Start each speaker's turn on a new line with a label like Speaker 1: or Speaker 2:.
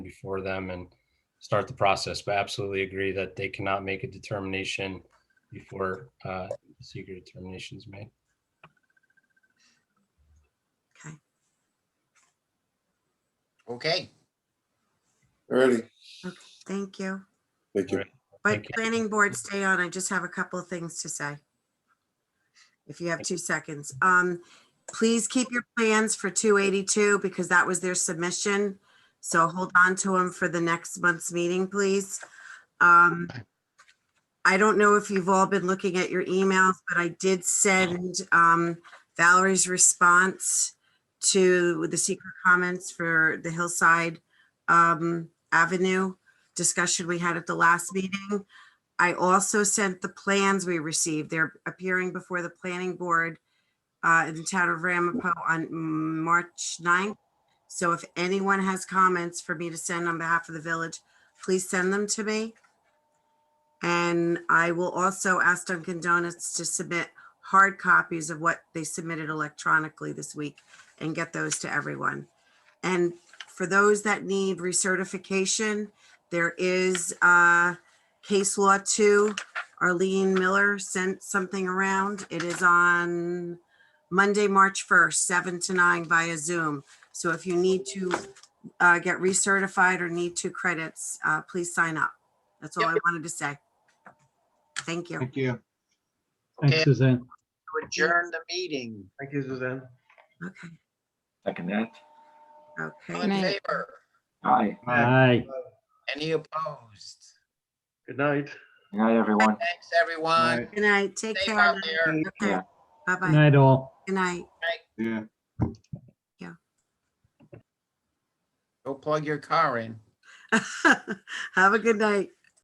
Speaker 1: before them and start the process, but absolutely agree that they cannot make a determination before uh, secret determination is made.
Speaker 2: Okay,
Speaker 3: Okay,
Speaker 4: Alrighty,
Speaker 2: thank you.
Speaker 4: thank you.
Speaker 1: Alright. Thank
Speaker 2: But
Speaker 1: you.
Speaker 2: planning board, stay on. I just have a couple of things to say. If you have two seconds. Um, please keep your plans for two eighty-two because that was their submission. So hold on to them for the next month's meeting, please. Um, I don't know if you've all been looking at your emails, but I did send, um, Valerie's response to the secret comments for the Hillside, um, Avenue discussion we had at the last meeting. I also sent the plans we received. They're appearing before the planning board uh, in the town of Ramapo on mm, March 9th. So if anyone has comments for me to send on behalf of the village, please send them to me. And I will also ask Dunkin' Donuts to submit hard copies of what they submitted electronically this week and get those to everyone. And for those that need recertification, there is uh, case law two. Arlene Miller sent something around. It is on Monday, March 1st, 7 to 9 via Zoom. So if you need to uh, get recertified or need two credits, uh, please sign up. That's all I wanted to say. Thank you.
Speaker 5: Thank you.
Speaker 3: okay,
Speaker 6: Thanks, Suzanne.
Speaker 3: to adjourn the meeting.
Speaker 5: Thank you, Suzanne.
Speaker 2: Okay,
Speaker 7: Second that.
Speaker 3: All
Speaker 2: okay.
Speaker 3: in favor?
Speaker 7: Hi,
Speaker 6: Aye.
Speaker 3: Any opposed?
Speaker 5: Good night.
Speaker 7: good night, everyone.
Speaker 3: Thanks, everyone.
Speaker 2: Good night. Take
Speaker 3: Stay
Speaker 2: care.
Speaker 3: out there.
Speaker 2: Okay.
Speaker 7: Yeah.
Speaker 6: Good
Speaker 2: Bye-bye.
Speaker 6: night, all.
Speaker 2: Good night.
Speaker 5: Yeah.
Speaker 3: Go plug your car in.
Speaker 2: Have a good night.